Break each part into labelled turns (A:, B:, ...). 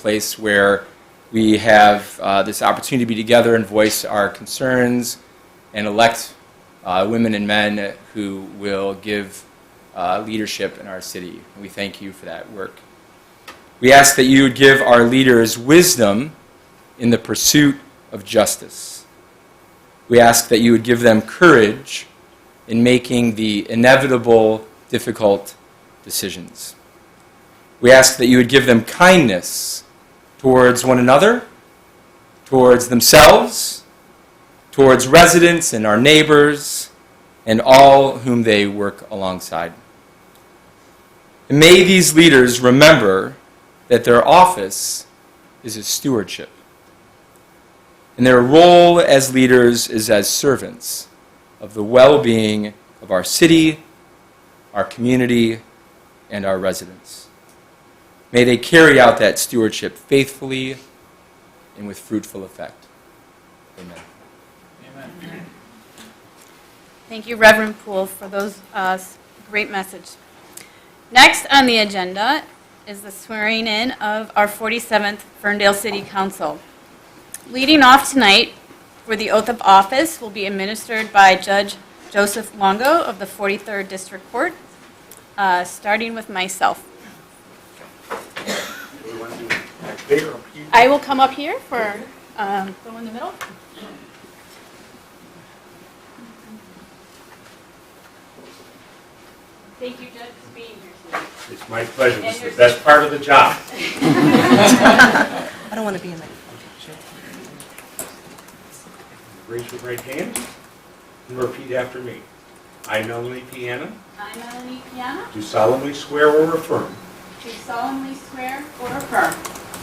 A: place where we have uh, this opportunity to be together and voice our concerns and elect uh, women and men who will give uh, leadership in our city. We thank you for that work. We ask that you would give our leaders wisdom in the pursuit of justice. We ask that you would give them courage in making the inevitable, difficult decisions. We ask that you would give them kindness towards one another, towards themselves, towards residents and our neighbors, and all whom they work alongside. And may these leaders remember that their office is a stewardship, and their role as leaders is as servants of the well being of our city, our community, and our residents. May they carry out that stewardship faithfully and with fruitful effect. Amen.
B: Thank you, Reverend Poole, for those uh, great message. Next on the agenda is the swearing in of our 47th Ferndale City Council. Leading off tonight, where the oath of office will be administered by Judge Joseph Longo of the 43rd District Court, uh, starting with myself.
C: We want to do back there or here?
B: I will come up here for um, the one in the middle. Thank you, Judge, for being here tonight.
C: It's my pleasure. This is the best part of the job.
D: I don't want to be in that.
C: Raise your right hand and repeat after me. I, Melanie Piana,
B: I, Melanie Piana,
C: do solemnly swear or affirm
B: do solemnly swear or affirm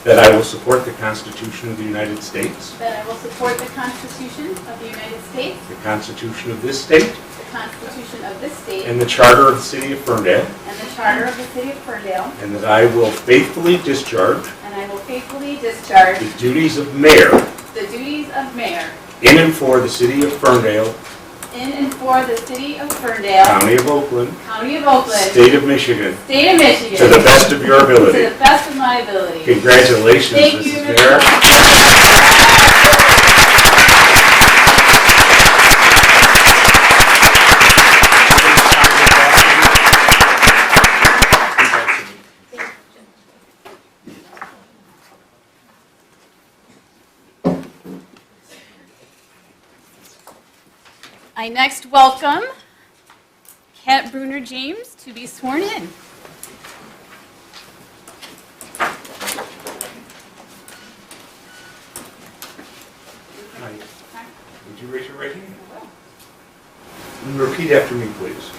C: that I will support the Constitution of the United States,
B: that I will support the Constitution of the United States,
C: the Constitution of this state,
B: the Constitution of this state,
C: and the Charter of the City of Ferndale,
B: and the Charter of the City of Ferndale,
C: and that I will faithfully discharge
B: and I will faithfully discharge
C: the duties of mayor
B: the duties of mayor
C: in and for the City of Ferndale,
B: in and for the City of Ferndale,
C: County of Oakland,
B: County of Oakland,
C: State of Michigan,
B: State of Michigan,
C: Um, to the best of your
B: To
C: ability.
B: the best of my ability.
C: Congratulations,
B: Thank you,
C: Mrs. Mayor.
B: Mr. I next welcome Kat Bruner James to be sworn in.
C: Hi. Would you raise your right hand? And repeat after me, please.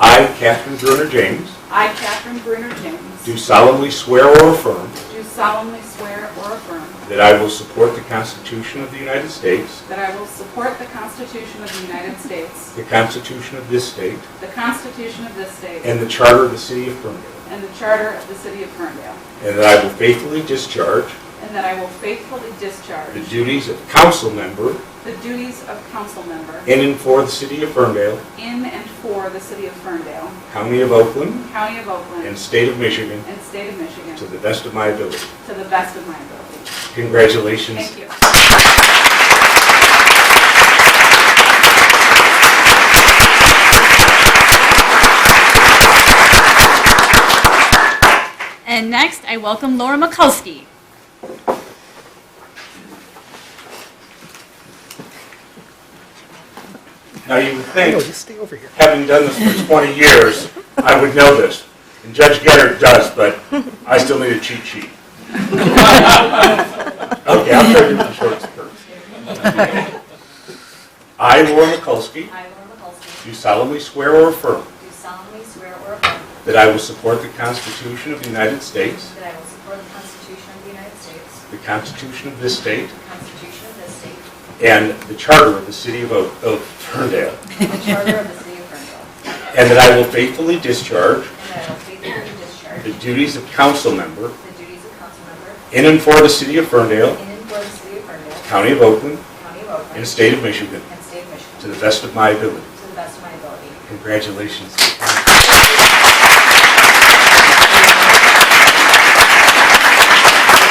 C: I, Catherine Bruner James,
E: I, Catherine Bruner James,
C: do solemnly swear or affirm
E: do solemnly swear or affirm
C: that I will support the Constitution of the United States,
E: that I will support the Constitution of the United States,
C: the Constitution of this state,
E: the Constitution of this state,
C: and the Charter of the City of Ferndale,
E: and the Charter of the City of Ferndale,
C: and that I will faithfully discharge
E: and that I will faithfully
C: the
E: discharge
C: duties of council member
E: the duties of council member
C: in and for the City of Ferndale,
E: in and for the City of Ferndale,
C: County of Oakland,
E: County of
C: and
E: Oakland,
C: State of Michigan
E: and State of Michigan,
C: to the best of my ability.
E: to the best of my ability.
C: Congratulations.
E: Thank you.
B: And next, I welcome Laura Mikulski.
C: Now, you would think
D: just stay over here.
C: having done this for 20 years, I would know this. And Judge Gettard does, but I still need a cheat sheet. Okay, I'll try to do the short skirt. I, Laura Mikulski,
F: I, Laura Mikulski,
C: do solemnly swear or affirm
F: do solemnly swear or affirm
C: that I will support the Constitution of the United States,
F: that I will support the Constitution of the United States,
C: the Constitution of this state,
F: the Constitution of this state,
C: and the Charter of the City of Oak- of Ferndale,
F: and the Charter of the City of Ferndale,
C: and that I will faithfully discharge
F: and that I will faithfully discharge
C: the duties of council member
F: the duties of council member
C: in and for the City of Ferndale,
F: in and for the City of Ferndale,
C: County of Oakland,
F: County of Oakland,
C: and State of Michigan.
F: and State of
C: To
F: Michigan,
C: the best of my ability.
F: to the best of my ability.
C: Congratulations.